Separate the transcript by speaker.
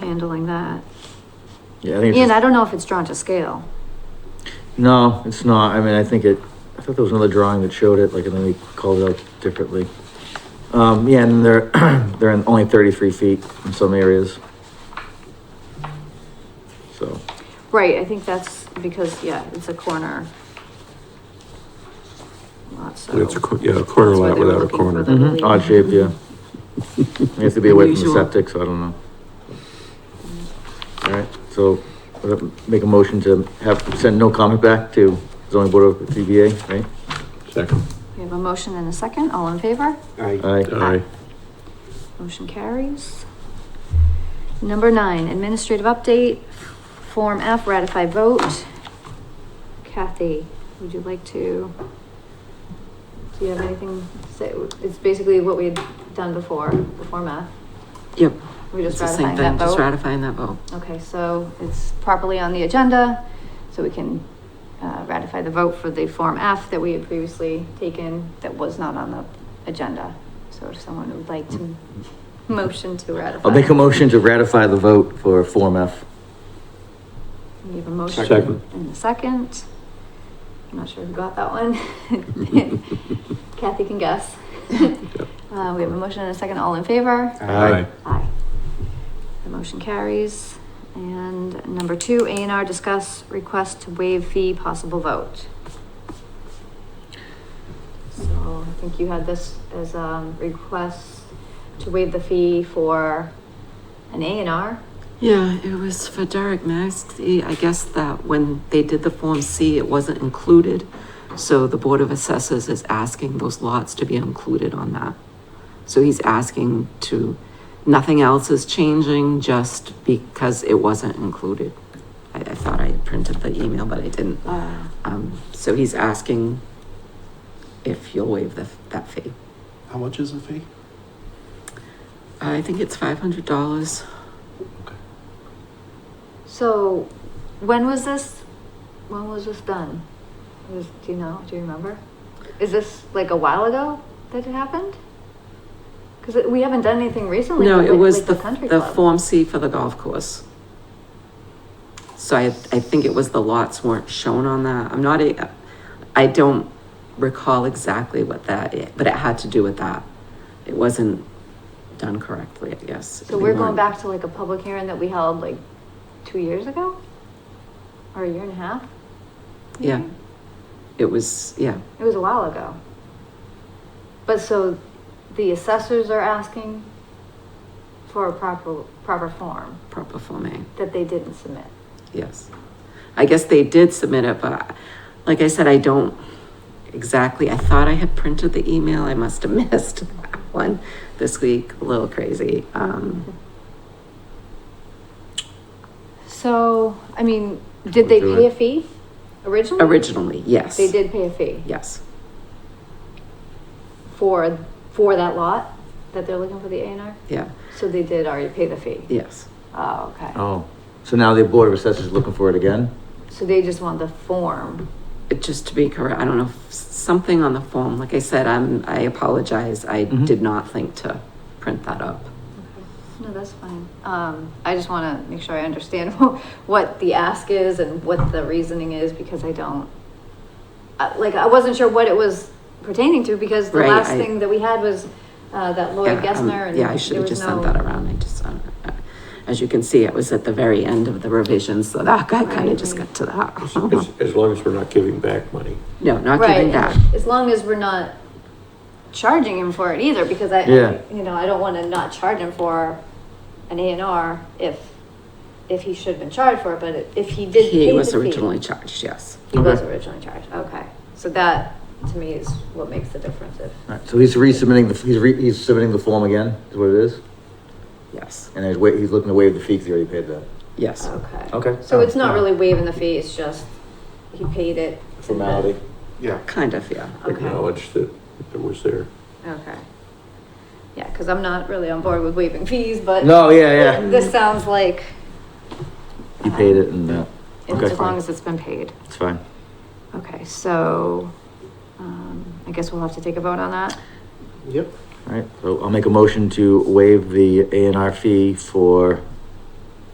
Speaker 1: handling that.
Speaker 2: Yeah, I think. it's
Speaker 1: Ian,
Speaker 2: just-
Speaker 1: I don't know if it's drawn to scale.
Speaker 2: No, it's not. I mean, I think it, I thought there was another drawing that showed it, like, and then they called it out differently. Um, yeah, and they're, they're in only thirty-three feet in some areas. So,
Speaker 1: Right, I think that's because, yeah, it's a corner. Lot, so.
Speaker 3: It's a, cor- yeah, a corner
Speaker 1: That's why
Speaker 3: lot
Speaker 1: they were
Speaker 3: without a
Speaker 1: looking for
Speaker 3: corner.
Speaker 1: the relief.
Speaker 2: odd shape, yeah. You have to be away from the
Speaker 4: Unusual.
Speaker 2: septic, so I don't know. Alright, so, uh, make a motion to have, send no comment back to zoning board of ZBA, right?
Speaker 3: Second.
Speaker 1: We have a motion and a second, all in favor?
Speaker 2: Aye.
Speaker 3: Aye.
Speaker 1: Motion carries. Number nine, administrative update, Form F, ratify vote. Kathy, would you like to? Do you have anything to say? It's basically what we had done before, the Form F.
Speaker 4: Yep.
Speaker 1: We're just
Speaker 4: It's the same
Speaker 1: ratifying that
Speaker 4: thing, Just
Speaker 1: vote?
Speaker 4: ratifying that vote.
Speaker 1: Okay, so it's properly on the agenda, so we can uh, ratify the vote for the Form F that we had previously taken that was not on the agenda. So if someone would like to motion to ratify.
Speaker 2: I'll make a motion to ratify the vote for Form F.
Speaker 1: We have a motion.
Speaker 3: Second.
Speaker 1: And a second. I'm not sure who got that one. Kathy can guess. Uh, we have a motion and a second, all in favor?
Speaker 2: Aye.
Speaker 1: Aye. The motion carries. And number two, A and R discuss request to waive fee, possible vote. So I think you had this as a request to waive the fee for an A and R.
Speaker 4: Yeah, it was for Derek Maxey. I guess that when they did the Form C, it wasn't included. So the Board of Assessors is asking those lots to be included on that. So he's asking to, nothing else is changing just because it wasn't included. I, I thought I had printed the email, but I didn't. Um, so he's asking if you'll waive the, that fee.
Speaker 5: How much is the fee?
Speaker 4: I think it's five hundred dollars.
Speaker 1: So when was this, when was this done? Was, do you know, do you remember? Is this like a while ago that it happened? Because we haven't done anything recently.
Speaker 4: No,
Speaker 1: with,
Speaker 4: it
Speaker 1: like-
Speaker 4: was
Speaker 1: like
Speaker 4: the,
Speaker 1: country
Speaker 4: the
Speaker 1: club.
Speaker 4: Form C for the golf course. So I, I think it was the lots weren't shown on that. I'm not, a- I don't recall exactly what that, i- but it had to do with that. It wasn't done correctly, I guess.
Speaker 1: So we're going back to like a public hearing that we held like two years ago? Or a year and a half?
Speaker 4: Yeah. It was, yeah,
Speaker 1: It was a while ago. But so the assessors are asking for a proper, proper form
Speaker 4: proper Form A.
Speaker 1: that they didn't submit.
Speaker 4: Yes. I guess they did submit it, but like I said, I don't exactly, I thought I had printed the email. I must have missed that one this week, a little crazy. Um,
Speaker 1: So, I mean, did they pay a fee originally?
Speaker 4: originally, yes.
Speaker 1: They did pay a fee
Speaker 4: Yes,
Speaker 1: for, for that lot that they're looking for the A and R?
Speaker 4: yeah,
Speaker 1: So they did already pay the fee?
Speaker 4: yes.
Speaker 1: Oh, okay.
Speaker 2: Oh, so now the board of assessors is looking for it again?
Speaker 1: So they just want the form.
Speaker 4: It- Just to be correct, I don't know, s- something on the form, like I said, I'm, I apologize. I
Speaker 2: Mhm.
Speaker 4: did not think to print that up.
Speaker 1: No, that's fine. Um, I just wanna make sure I understand what the ask is and what the reasoning is, because I don't. Uh, like, I wasn't sure what it was pertaining to, because the
Speaker 4: Right,
Speaker 1: last
Speaker 4: I-
Speaker 1: thing that we had was, uh, that Lloyd
Speaker 4: Yeah, um,
Speaker 1: Gessner and.
Speaker 4: Yeah, I should
Speaker 1: there
Speaker 4: have
Speaker 1: was
Speaker 4: just
Speaker 1: no-
Speaker 4: sent that around. I just, uh, as you can see, it was at the very end of the revisions, so that guy kind
Speaker 1: Right,
Speaker 4: of just
Speaker 1: right.
Speaker 4: got to that.
Speaker 3: As, as long as we're not giving back money.
Speaker 4: No, not
Speaker 1: Right, and
Speaker 4: giving back.
Speaker 1: As long as we're not charging him for it either, because I,
Speaker 2: Yeah.
Speaker 1: you know, I don't wanna not charge him for an A and R if, if he should have been charged for it, but if he did pay
Speaker 4: He
Speaker 1: the
Speaker 4: was
Speaker 1: fee-
Speaker 4: originally charged, yes.
Speaker 1: He was
Speaker 2: Okay.
Speaker 1: originally charged, okay. So that, to me, is what makes the difference if.
Speaker 2: Alright, so he's resubmitting the, he's re, he's submitting the form again, is what it is?
Speaker 4: Yes,
Speaker 2: And he's wa, he's looking to waive the fee because he already paid that.
Speaker 4: yes.
Speaker 1: Okay.
Speaker 2: Okay.
Speaker 1: So it's not really waiving the fee, it's just he paid it.
Speaker 2: Formality.
Speaker 5: Yeah.
Speaker 4: Kind of, yeah.
Speaker 1: Okay,
Speaker 3: Acknowledge that it was there.
Speaker 1: okay. Yeah, because I'm not really on board with waiving fees, but.
Speaker 2: No, yeah, yeah.
Speaker 1: This sounds like,
Speaker 2: He paid it and, uh,
Speaker 1: it's
Speaker 2: Okay.
Speaker 1: as long as it's been paid.
Speaker 2: it's fine.
Speaker 1: Okay, so, um, I guess we'll have to take a vote on that.
Speaker 5: Yep.
Speaker 2: Alright, so I'll make a motion to waive the A and R fee for